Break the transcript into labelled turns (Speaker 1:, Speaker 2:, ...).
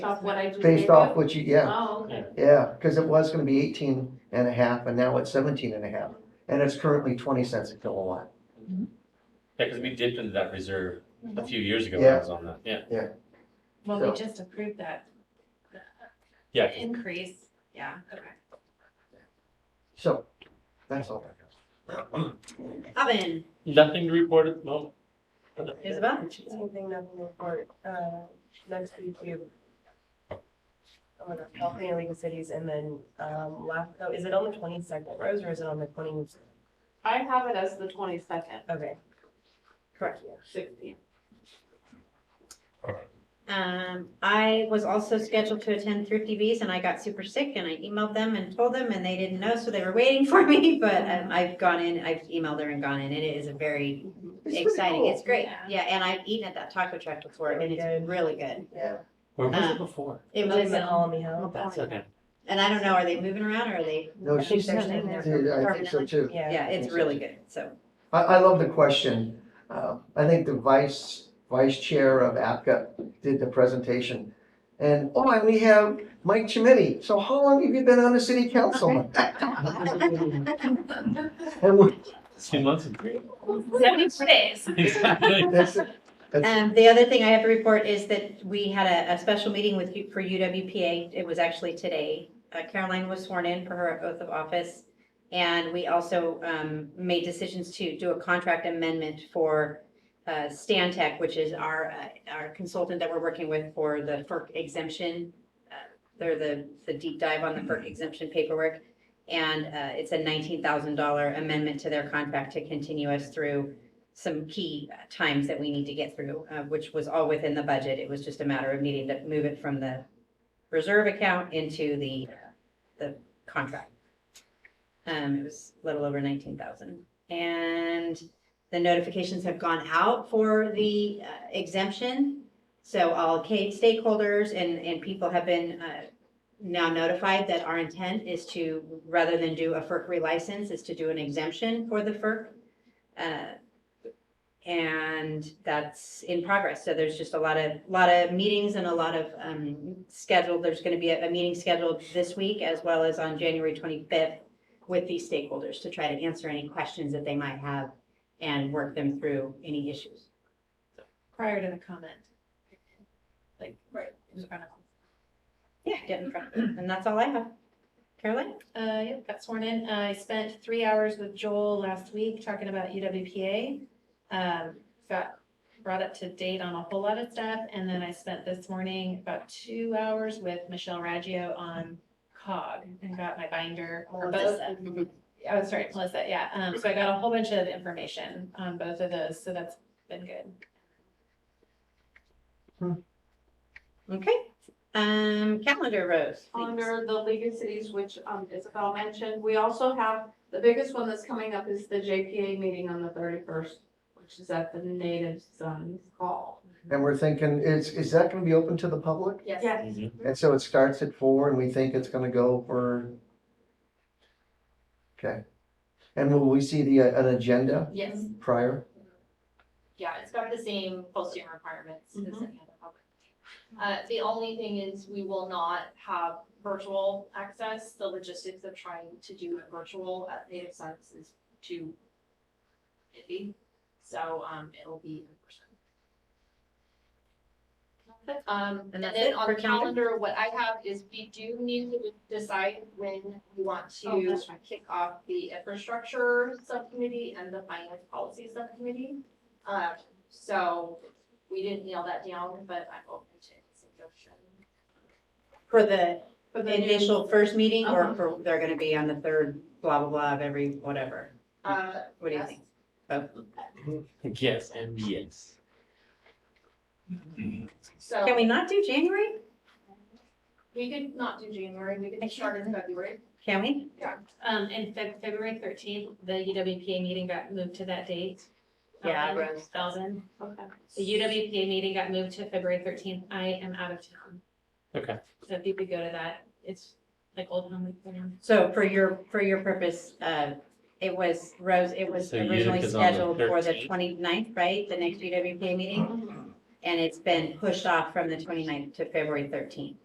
Speaker 1: Off what I just gave
Speaker 2: Based
Speaker 1: you?
Speaker 2: off what you, yeah,
Speaker 1: Oh, okay.
Speaker 2: yeah, because it was gonna be eighteen and a half, and now it's seventeen and a half, and it's currently twenty cents a kilowatt.
Speaker 3: Yeah, because we dipped into that reserve a few years ago when
Speaker 2: Yeah.
Speaker 3: I was on that, yeah.
Speaker 4: Well, we
Speaker 2: So-
Speaker 4: just approved that
Speaker 3: Yeah, 'cause
Speaker 4: increase, yeah, okay.
Speaker 2: So, that's all.
Speaker 4: Oven,
Speaker 3: nothing to report at the moment.
Speaker 4: Isabel?
Speaker 5: Same thing, nothing to report. Uh, next week we have. oh I'm gonna help in League of Cities and then, um, last, oh, is it on the twenty-second, Rose, or is it on the twenty?
Speaker 1: I have it as the twenty-second,
Speaker 5: Okay. Correct.
Speaker 1: sixteen.
Speaker 6: Um, I was also scheduled to attend Thrifty Bees and I got super sick and I emailed them and told them and they didn't know, so they were waiting for me, but um, I've gone in, I've emailed her and gone in, and it is a very
Speaker 2: It's pretty
Speaker 6: exciting,
Speaker 2: cool.
Speaker 6: it's great.
Speaker 1: Yeah.
Speaker 6: Yeah, and I've eaten at that taco truck before and
Speaker 5: Really good.
Speaker 6: it's really good.
Speaker 5: Yeah.
Speaker 3: Where was
Speaker 6: Uh,
Speaker 3: it before?
Speaker 6: It
Speaker 5: That
Speaker 6: was,
Speaker 5: was at Alamy Hill.
Speaker 3: Oh, that's okay.
Speaker 6: and I don't know, are they moving around or are they?
Speaker 2: No,
Speaker 5: I think
Speaker 2: she's,
Speaker 5: there's
Speaker 2: I
Speaker 5: in there.
Speaker 2: think so too.
Speaker 5: Yeah.
Speaker 6: Yeah, it's really good, so.
Speaker 2: I, I love the question. Uh, I think the vice, vice chair of APCA did the presentation. And, oh, and we have Mike Chimini. So how long have you been on the city council? And we-
Speaker 3: Two months and
Speaker 1: Seventy-three days.
Speaker 3: Exactly.
Speaker 2: that's it. That's-
Speaker 6: Um, the other thing I have to report is that we had a, a special meeting with, U- for UWPA. It was actually today. Uh, Caroline was sworn in for her oath of office. And we also, um, made decisions to do a contract amendment for, uh, Stan Tech, which is our, uh, our consultant that we're working with for the FERC exemption. uh, They're the, the deep dive on the FERC exemption paperwork. And, uh, it's a nineteen thousand dollar amendment to their contract to continue us through some key uh, times that we need to get through, uh, which was all within the budget. It was just a matter of needing to move it from the reserve account into the, the contract. Um, it was a little over nineteen thousand. And the notifications have gone out for the uh, exemption. So all K stakeholders and, and people have been, uh, now notified that our intent is to, rather than do a FERC relicense, is to do an exemption for the FERC. Uh, and that's in progress. So there's just a lot of, lot of meetings and a lot of um, scheduled, there's going to be a, a meeting scheduled this week as well as on January 25th with these stakeholders to try to answer any questions that they might have and work them through any issues.
Speaker 4: prior to the comment. Like, right.
Speaker 6: Yeah, get in front of them. And that's all I have. Caroline?
Speaker 4: Uh, yeah, got sworn in. Uh, I spent three hours with Joel last week talking about E UWPA. Um, got brought up to date on a whole lot of stuff, and then I spent this morning about two hours with Michelle Raggio on COG and got my binder for both. Oh, sorry, Melissa, yeah. Um, so I got a whole bunch of information on both of those, so that's been good.
Speaker 6: Okay. Um, calendar, Rose. please.
Speaker 1: Under the League of Cities, which um, Isabel mentioned, we also have, the biggest one that's coming up is the JPA meeting on the thirty-first, which is at the Native Sons Hall.
Speaker 2: And we're thinking, is, is that gonna be open to the public?
Speaker 1: Yeah.
Speaker 3: Mhm.
Speaker 2: And so it starts at four and we think it's gonna go for. Okay. And will we see the, uh, an agenda
Speaker 7: Yes,
Speaker 2: prior?
Speaker 7: yeah, it's got the same posting requirements as any
Speaker 6: Mm-hmm.
Speaker 1: Mhm.
Speaker 7: other public. Uh, the only thing is we will not have virtual access. The logistics of trying to do it virtual at Native Sons is too iffy. So, um, it'll be in person. Um,
Speaker 6: And
Speaker 7: and
Speaker 6: that's
Speaker 7: then
Speaker 6: it
Speaker 7: on
Speaker 6: for
Speaker 7: the
Speaker 6: calendar?
Speaker 7: calendar, what I have is we do need to decide when we want
Speaker 1: Oh,
Speaker 7: to
Speaker 1: that's right.
Speaker 7: kick off the infrastructure subcommittee and the finance policy subcommittee. Um, so we didn't nail that down, but I'm open to suggestion.
Speaker 6: For the
Speaker 1: For the
Speaker 6: initial first meeting or
Speaker 1: Uh-huh.
Speaker 6: for, they're going to be on the third blah, blah, blah of every whatever.
Speaker 7: Uh,
Speaker 6: What do you
Speaker 7: yes.
Speaker 6: think? Both?
Speaker 3: Yes, and yes.
Speaker 6: Can
Speaker 7: So
Speaker 6: we not do January?
Speaker 7: we could not do January, we could start in February.
Speaker 6: Can we?
Speaker 4: Um, and Feb- February thirteenth, the UWPA meeting got moved to that date.
Speaker 6: Yeah,
Speaker 4: Um,
Speaker 6: Rose.
Speaker 4: Thousand.
Speaker 1: Okay.
Speaker 4: The UWPA meeting got moved to February thirteenth. I am out of town.
Speaker 3: Okay.
Speaker 4: So if you could go to that, it's like old home week for now.
Speaker 6: So for your, for your purpose, uh, it was, Rose, it was
Speaker 3: So
Speaker 6: originally
Speaker 3: Utica's on the
Speaker 6: scheduled for the
Speaker 3: 13th?
Speaker 6: 29th, right? The next UWPA meeting? and it's been pushed off from the 29th to February thirteenth.